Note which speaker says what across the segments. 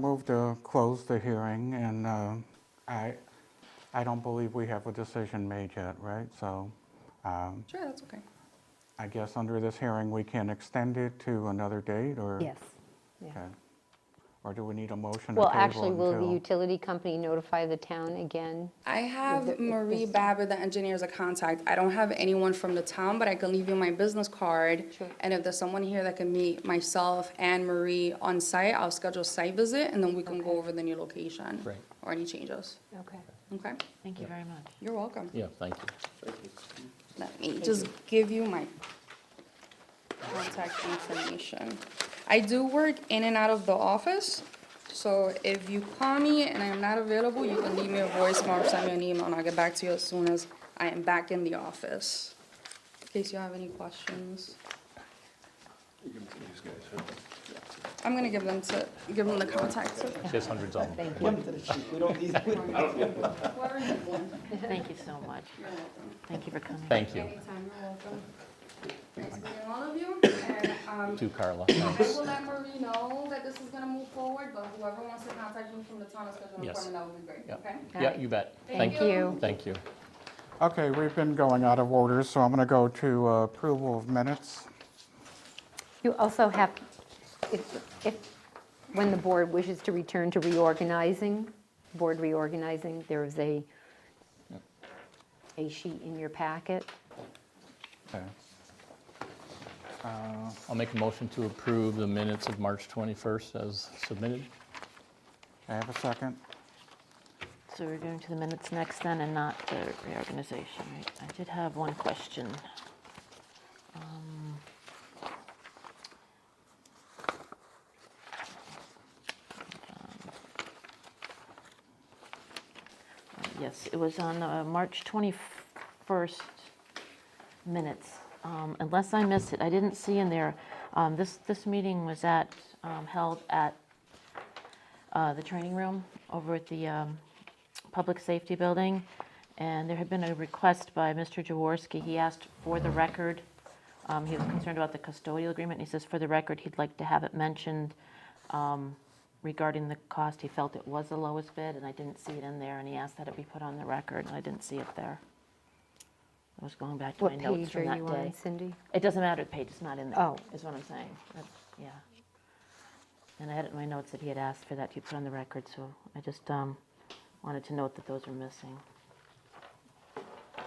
Speaker 1: Move to close the hearing, and uh, I, I don't believe we have a decision made yet, right? So um,
Speaker 2: Sure, that's okay.
Speaker 1: I guess under this hearing, we can extend it to another date, or?
Speaker 3: Yes. yeah.
Speaker 1: Okay. Or do we need a motion to
Speaker 3: Well,
Speaker 1: table
Speaker 3: actually, will the
Speaker 1: until-
Speaker 3: utility company notify the town again?
Speaker 2: I
Speaker 3: the-
Speaker 2: have
Speaker 3: with
Speaker 2: Marie
Speaker 3: this-
Speaker 2: Babbitt, the engineer, as a contact. I don't have anyone from the town, but I can leave you my business card.
Speaker 3: Sure.
Speaker 2: And if there's someone here that can meet myself and Marie on site, I'll schedule a site visit and then we can go over the new location.
Speaker 4: Great.
Speaker 2: Or any changes.
Speaker 3: Okay,
Speaker 2: Okay?
Speaker 5: Thank you very much.
Speaker 2: You're welcome.
Speaker 4: Yeah, thank you.
Speaker 2: Let me just give you my contact information. I do work in and out of the office, so if you call me and I'm not available, you can leave me a voicemail or send me an email, and I'll get back to you as soon as I am back in the office. In case you have any questions. I'm gonna give them to, give them the contacts.
Speaker 4: There's hundreds of them.
Speaker 5: Thank you.
Speaker 2: Where is it then?
Speaker 5: Thank you so much. Thank you for coming.
Speaker 4: Thank you
Speaker 2: Anytime, you're welcome. Nice meeting all of you, and, um,
Speaker 4: to Carla.
Speaker 2: I will let Marie know that this is gonna move forward, but whoever wants to contact me from the town, especially an
Speaker 4: Yes.
Speaker 2: appointment, that would be great,
Speaker 4: Yeah.
Speaker 2: okay?
Speaker 4: Yeah, you bet.
Speaker 3: Thank you.
Speaker 4: Thank you.
Speaker 1: Okay, we've been going out of order, so I'm going to go to uh, approval of minutes.
Speaker 3: You also have, if, if, when the board wishes to return to reorganizing, board reorganizing, there is a, a sheet in your packet.
Speaker 1: Okay. Uh,
Speaker 4: I'll make a motion to approve the minutes of March 21st as submitted.
Speaker 1: I have a second.
Speaker 5: So we're going to the minutes next then and not the reorganization, right? I did have one question. Um, um, Yes, it was on uh, March 21st minutes. Um, Unless I missed it, I didn't see in there, um, this, this meeting was at, um, held at uh, the training room over at the um, Public Safety Building, and there had been a request by Mr. Jaworski. He asked for the record, um, he was concerned about the custodial agreement, he says, for the record, he'd like to have it mentioned um, regarding the cost. He felt it was the lowest bid, and I didn't see it in there, and he asked that it be put on the record, and I didn't see it there. I was going back to my
Speaker 3: What
Speaker 5: notes
Speaker 3: page
Speaker 5: from
Speaker 3: are
Speaker 5: that
Speaker 3: you
Speaker 5: day.
Speaker 3: on, Cindy?
Speaker 5: It doesn't matter, the page is not in there.
Speaker 3: Oh.
Speaker 5: Is what I'm saying. That- Yeah. And I had it in my notes that he had asked for that to be put on the record, so I just um, wanted to note that those were missing.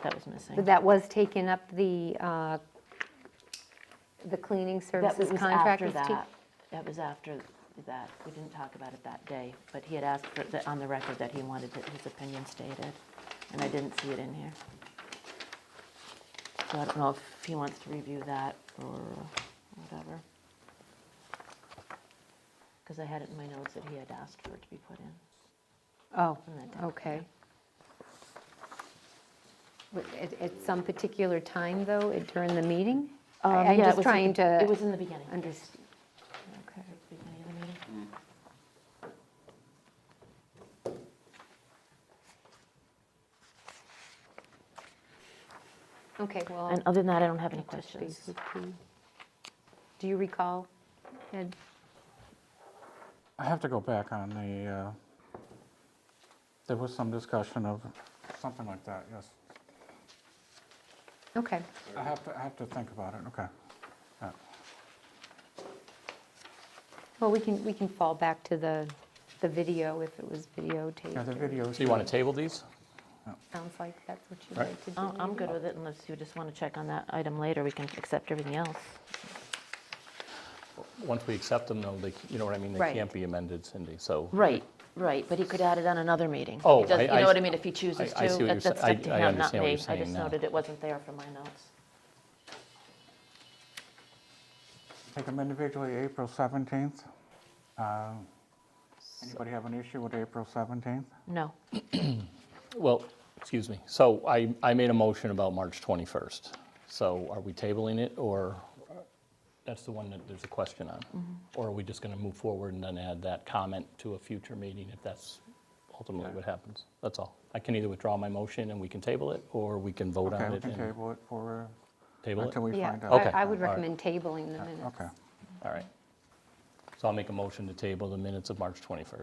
Speaker 5: That was missing.
Speaker 3: But that was taken up, the, uh, the cleaning
Speaker 5: That
Speaker 3: services
Speaker 5: was
Speaker 3: contract
Speaker 5: after
Speaker 3: was ta-
Speaker 5: that. That was after that. We didn't talk about it that day, but he had asked for, the- on the record that he wanted it- his opinion stated, and I didn't see it in here. So I don't know if he wants to review that or whatever. Because I had it in my notes that he had asked for it to be put in.
Speaker 3: Oh,
Speaker 5: on that day.
Speaker 3: okay. Wa- At, at some particular time, though, it- during the meeting?
Speaker 5: Um,
Speaker 3: I- I'm
Speaker 5: yeah, it
Speaker 3: just
Speaker 5: was in
Speaker 3: trying
Speaker 5: the- It
Speaker 3: to
Speaker 5: was in the beginning.
Speaker 3: understand. Okay.
Speaker 5: Beginning of the meeting.
Speaker 3: Okay, well.
Speaker 5: And other than that, I don't have any
Speaker 3: I'll touch
Speaker 5: questions.
Speaker 3: base with you. Do you recall, Ed?
Speaker 1: I have to go back on the, uh, there was some discussion of something like that, yes.
Speaker 3: Okay,
Speaker 1: I have to, I have to think about it, okay. Yeah.
Speaker 3: well, we can, we can fall back to the, the video if it was
Speaker 1: Yeah, the
Speaker 3: videotaped.
Speaker 1: video.
Speaker 4: So you want to table these?
Speaker 3: Sounds like that's what you'd
Speaker 4: Right.
Speaker 3: like to do.
Speaker 5: Oh, I'm good with it unless you just want to check on that item later. We can accept everything else.
Speaker 4: Once we accept them, though, they, you know what I mean? They
Speaker 3: Right.
Speaker 4: can't be amended, Cindy, so.
Speaker 5: Right, right, but he could add it on another meeting.
Speaker 4: Oh,
Speaker 5: He does-
Speaker 4: I-
Speaker 5: You
Speaker 4: I-
Speaker 5: know what I mean, if he chooses to.
Speaker 4: I- I see what
Speaker 5: That-
Speaker 4: you're
Speaker 5: That's
Speaker 4: sa- I-
Speaker 5: up to
Speaker 4: I
Speaker 5: him, not
Speaker 4: understand what
Speaker 5: me.
Speaker 4: you're
Speaker 5: I
Speaker 4: saying
Speaker 5: just
Speaker 4: now.
Speaker 5: noted it wasn't there from my notes.
Speaker 1: Take them individually, April 17th. Um, Anybody have an issue with April 17th?
Speaker 5: No,
Speaker 4: Well, excuse me. So I, I made a motion about March 21st. So are we tabling it, or, that's the one that there's a question
Speaker 1: Mm-hmm.
Speaker 4: on? Or are we just going to move forward and then add that comment to a future meeting if that's ultimately what happens? That's all. I can either withdraw my motion and we can table it, or we can vote
Speaker 1: Okay,
Speaker 4: on
Speaker 1: we
Speaker 4: it
Speaker 1: can
Speaker 4: and
Speaker 1: table it for, uh,
Speaker 4: table it.
Speaker 1: until we
Speaker 3: Yeah,
Speaker 1: find out.
Speaker 4: Okay.
Speaker 3: I- I would
Speaker 4: All right.
Speaker 3: recommend tabling the minutes.
Speaker 1: Okay.
Speaker 4: All right. So I'll make a motion to table the minutes of March 21st.